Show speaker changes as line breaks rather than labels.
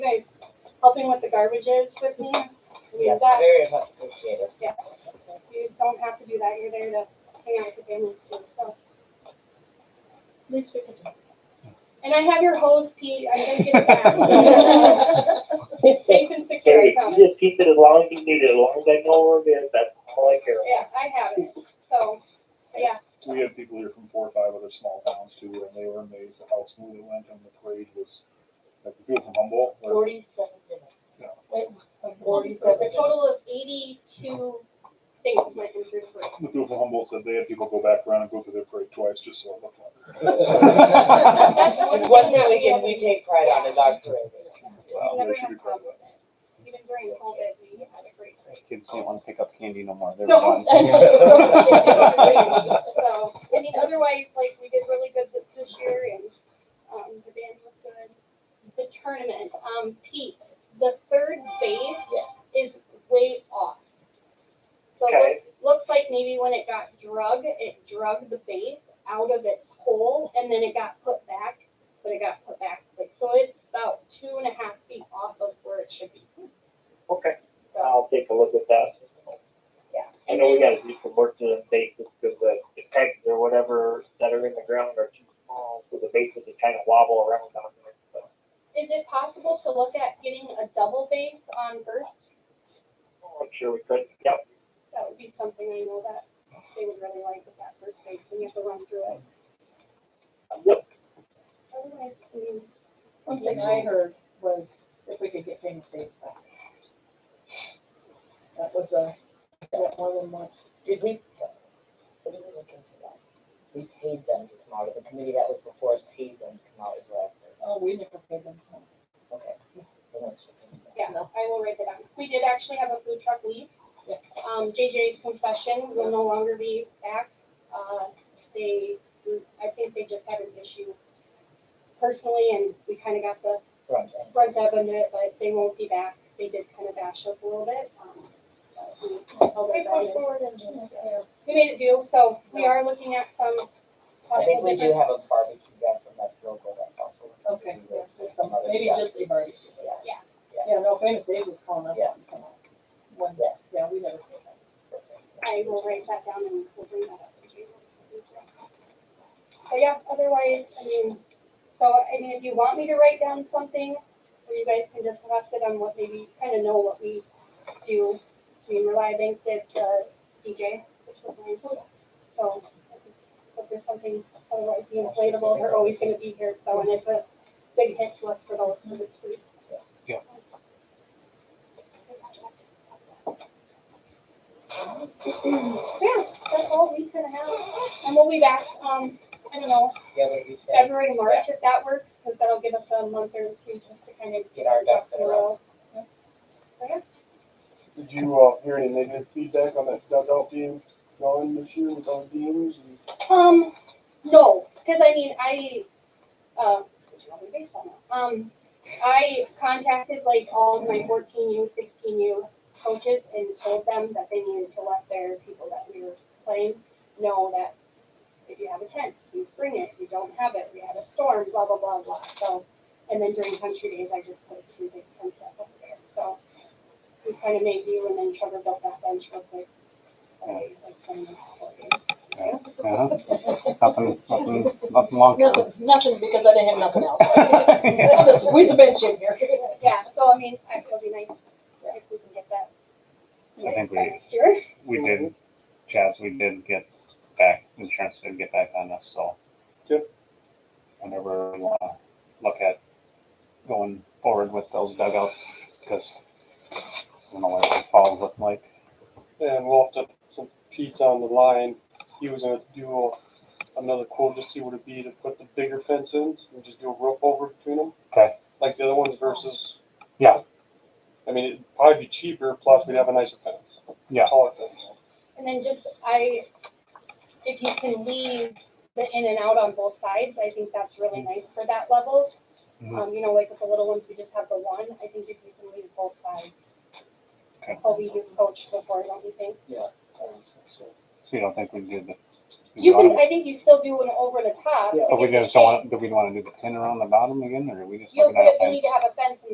guys helping with the garbages with me. We have
Yes,
that.
very much appreciated.
Yes. You don't have to do that. You're there to hang out with the families too. So at least we can do. And I have your hose, Pete. I'm gonna get it back. It's safe and secure, I
Hey,
promise.
you just keep it as long as you need it, as long as I know where it is, that's all I care.
Yeah, I have it. So, yeah,
We had people here from four or five other small towns too, and they were amazed at how smooth it went and the parade was, like the people from Humboldt, were-
Forty-seven
Yeah.
minutes. Wait,
so
Forty-seven
the
minutes.
total of eighty-two things my computer for.
the people from Humboldt said they had people go back around and go through their parade twice just so it looked like.
That's
It's one thing we can, we take pride on is our parade.
Wow,
Never
they should
had
be
a
proud of
problem with it. Even during COVID, we had a great break.
Kids don't want to pick up candy no more. They're
No.
done.
So, I mean, otherwise, like, we did really good this, this year and, um, the band was good. The tournament, um, Pete, the third base is way off. So it
Okay.
looks, looks like maybe when it got drug, it drug the base out of its hole and then it got put back, but it got put back. Like, so it's about two and a half feet off of where it should be.
Okay.
So,
I'll take a look at that.
yeah.
I
And
know we
then-
gotta do some work to the bases, cause the, the pegs or whatever that are in the ground are too small, so the bases just kinda wobble around on there, so.
Is it possible to look at getting a double base on first?
I'm sure we could, yep,
That would be something I know that they would really like with that first base, when you have to run through it. Oh,
yep,
Otherwise, I mean,
One thing I heard was if we could get famous days back. That was a, that more than once. Did we? What did we look into that? We paid them to come out of the committee that was before us paid them to come out as well. Oh, we never paid them. Okay. They weren't supposed to.
yeah, I will write that down. We did actually have a food truck leave.
Yeah.
Um, JJ's concession will no longer be back. Uh, they, I think they just had an issue personally, and we kind of got the
Right.
front up on it, but they won't be back. They did kind of bash us a little bit. um, but we
Oh,
held it down and- We made a deal, so we are looking at some
I
possible
think we do
different,
have a barbecue guy from that local that's also.
Okay, yeah, just some,
other
maybe
stuff.
just a barbecue.
Yeah.
Yeah.
Yeah, no, famous days was calling us.
Yeah.
One day,
Yes.
yeah, we never did that.
I will write that down and we'll bring that up. to you. But yeah, otherwise, I mean, so, I mean, if you want me to write down something, or you guys can discuss it on what maybe, kind of know what we do. I mean, uh, Rely Bank did the DJ, which was my tool. So, if there's something, otherwise the inflatables are always gonna be here, so, and it's a big hit to us for those, for this group.
Yeah.
Yeah, that's all we could have, and we'll be back, um, I don't know,
Yeah, what you said,
February, March, if that works, because that'll give us a month or two just to kind of
Get our ducks in a row.
Did you uh, hear any negative feedback on that dugout being gone this year with all the teams? And
Um, no, because I mean, I, uh, which one is baseball now? um, I contacted like all of my fourteen U, sixteen U coaches and told them that they needed to let their people that we were playing know that if you have a tent, please bring it. If you don't have it, we had a storm, blah, blah, blah, blah. So, and then during country days, I just put two big tents up over there. So we kind of made do and then Trevor built that bench real quick. Like, like, kind of, like,
Uh-huh. Nothing, nothing, nothing long term.
Nothing, nothing, because I didn't have nothing else. I'm gonna squeeze a bench in here.
Yeah, so I mean, I- it'll be nice if we can get that.
I think we-
Next year.
We did, Chaz, we did get back, insurance did get back on us, so.
Good.
Whenever we wanna look at going forward with those dugouts, because I don't know what the falls look like.
and we'll have to some Pete's on the line. He was going to do a, another quote to see what it'd be to put the bigger fence in and just do a rope over between them.
Okay.
Like the other ones versus.
Yeah.
I mean, it'd probably be cheaper, plus we'd have a nicer fence.
Yeah.
Taller fence.
And then just, I, if you can leave the in and out on both sides, I think that's really
Mm-hmm.
nice for that level.
Mhm.
Um, you know, like with the little ones, we just have the one, I think if you can leave both sides.
Okay.
Probably you coach before, don't you think?
Oh,
So you don't think we did the.
You can, I think you still do an over the top.
Yeah.
to
But we
get the
just don't
shape.
want, do we wanna do the pin around the bottom again, or are we just
You'll
looking at a
put,
fence?
we need to have a fence in